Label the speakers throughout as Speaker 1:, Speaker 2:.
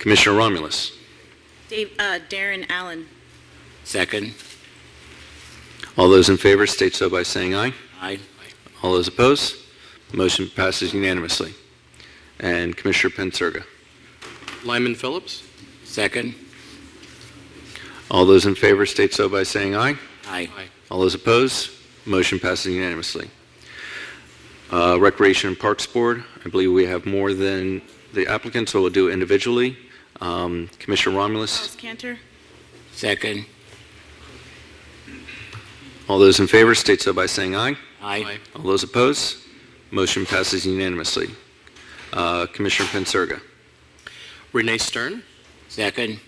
Speaker 1: Commissioner Romulus.
Speaker 2: Dave, uh, Darren Allen.
Speaker 3: Second.
Speaker 1: All those in favor state so by saying aye.
Speaker 3: Aye.
Speaker 1: All those opposed? Motion passes unanimously. And Commissioner Pensurga.
Speaker 4: Lyman Phillips.
Speaker 3: Second.
Speaker 1: All those in favor state so by saying aye.
Speaker 3: Aye.
Speaker 1: All those opposed? Motion passes unanimously. Uh, Recreation and Parks Board, I believe we have more than the applicant, so we'll do it individually. Um, Commissioner Romulus,
Speaker 2: Charles Cantor.
Speaker 3: Second.
Speaker 1: all those in favor state so by saying aye.
Speaker 3: Aye.
Speaker 1: All those opposed? Motion passes unanimously. Uh, Commissioner Pensurga.
Speaker 4: Renee Stern.
Speaker 3: Second.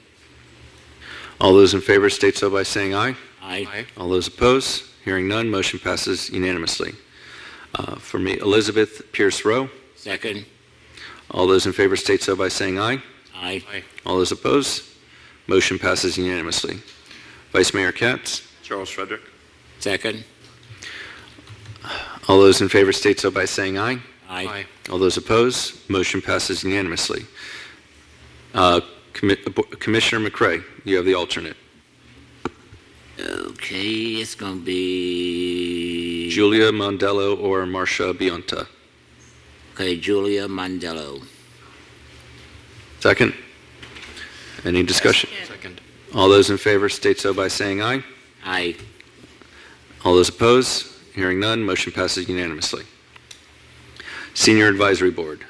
Speaker 1: All those in favor state so by saying aye.
Speaker 3: Aye.
Speaker 1: All those opposed? Hearing none, motion passes unanimously. Uh, For me, Elizabeth Pierce Rowe.
Speaker 3: Second.
Speaker 1: All those in favor state so by saying aye.
Speaker 3: Aye.
Speaker 1: All those opposed? Motion passes unanimously. Vice Mayor Katz.
Speaker 4: Charles Frederick.
Speaker 3: Second.
Speaker 1: All those in favor state so by saying aye.
Speaker 3: Aye.
Speaker 1: All those opposed? Motion passes unanimously. Uh, Commi- Bo- Commissioner McCray, you have the alternate.
Speaker 3: Okay, it's gonna be...
Speaker 1: Julia Mondello or Marcia Bionta.
Speaker 3: Okay, Julia Mandello.
Speaker 1: Second. Any discussion?
Speaker 2: Second.
Speaker 4: Second.
Speaker 1: All those in favor state so by saying aye.
Speaker 3: Aye.
Speaker 1: All those opposed? Hearing none, motion passes unanimously. Senior Advisory Board.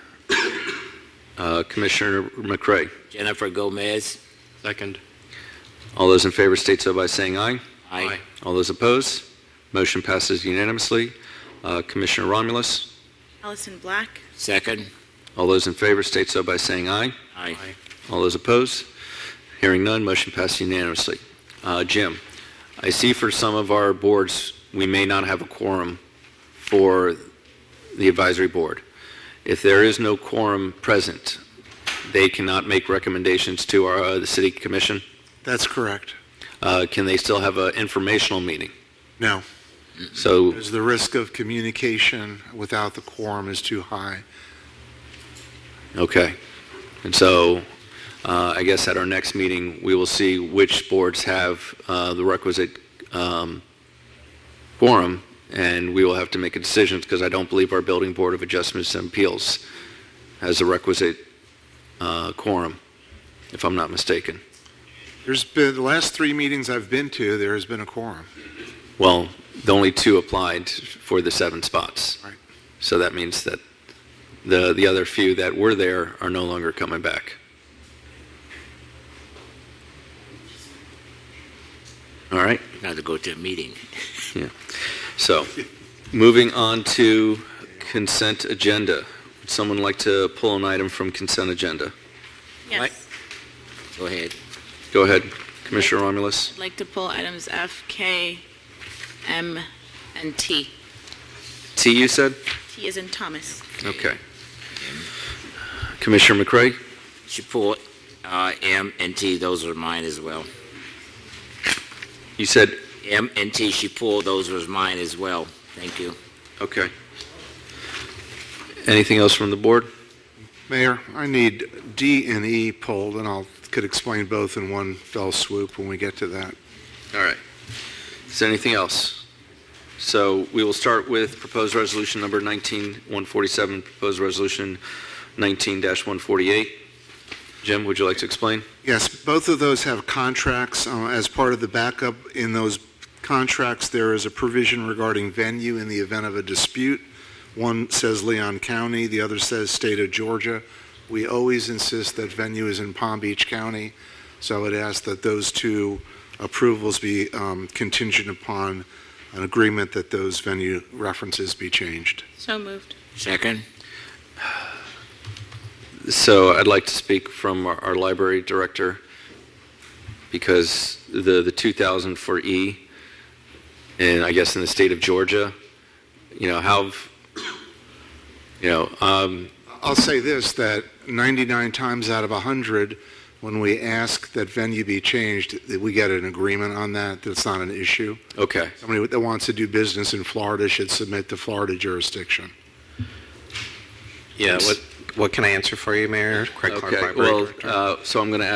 Speaker 1: Uh, Commissioner McCray,
Speaker 3: Jennifer Gomez.
Speaker 4: Second.
Speaker 1: all those in favor state so by saying aye.
Speaker 3: Aye.
Speaker 1: All those opposed? Motion passes unanimously. Uh, Commissioner Romulus,
Speaker 2: Allison Black.
Speaker 3: Second.
Speaker 1: all those in favor state so by saying aye.
Speaker 3: Aye.
Speaker 1: All those opposed? Hearing none, motion passed unanimously. Uh, Jim, I see for some of our boards, we may not have a quorum for the advisory board. If there is no quorum present, they cannot make recommendations to our, uh, the city commission?
Speaker 5: That's correct.
Speaker 1: Uh, Can they still have an informational meeting?
Speaker 5: No,
Speaker 1: So,
Speaker 5: because the risk of communication without the quorum is too high.
Speaker 1: okay. And so, uh, I guess at our next meeting, we will see which boards have uh, the requisite um, quorum, and we will have to make a decision, because I don't believe our Building Board of Adjustments and Appeals has the requisite uh, quorum, if I'm not mistaken.
Speaker 5: There's been, the last three meetings I've been to, there has been a quorum.
Speaker 1: Well, the only two applied for the seven spots.
Speaker 5: Right.
Speaker 1: So that means that the, the other few that were there are no longer coming back. All right?
Speaker 3: Now to go to a meeting.
Speaker 1: So, moving on to consent agenda. Would someone like to pull an item from consent agenda?
Speaker 3: Right.
Speaker 2: Yes.
Speaker 3: Go ahead.
Speaker 1: Go ahead, Commissioner Romulus.
Speaker 2: I'd like to pull items F, K, M, and T.
Speaker 1: T, you said?
Speaker 2: T is in Thomas.
Speaker 1: Okay. Commissioner McCray?
Speaker 3: Support, uh, M and T, those are mine as well.
Speaker 1: You said,
Speaker 3: M and T, she pulled, those were mine as well. Thank you.
Speaker 1: okay. Anything else from the board?
Speaker 5: Mayor, I need D and E pulled, and I'll, could explain both in one fell swoop when we get to that.
Speaker 1: All right. Is there anything else? So we will start with proposed resolution number 19-147, proposed resolution 19-148. Jim, would you like to explain?
Speaker 5: Yes, both of those have contracts. Uh, As part of the backup in those contracts, there is a provision regarding venue in the event of a dispute. One says Leon County, the other says State of Georgia. We always insist that venue is in Palm Beach County, so I would ask that those two approvals be um, contingent upon an agreement that those venue references be changed.
Speaker 2: So moved.
Speaker 3: Second?
Speaker 1: So I'd like to speak from our our library director because the, the 2,000 for E, and I guess in the state of Georgia, you know, how, you know, um,
Speaker 5: I'll say this, that 99 times out of 100, when we ask that venue be changed, that we get an agreement on that, that's not an issue.
Speaker 1: okay.
Speaker 5: Somebody that wants to do business in Florida should submit to Florida jurisdiction.
Speaker 1: Yeah, what,
Speaker 6: What can I answer for you, Mayor? Craig Clark,
Speaker 1: Okay,
Speaker 6: Library
Speaker 1: well,
Speaker 6: Director.
Speaker 1: uh, so I'm going to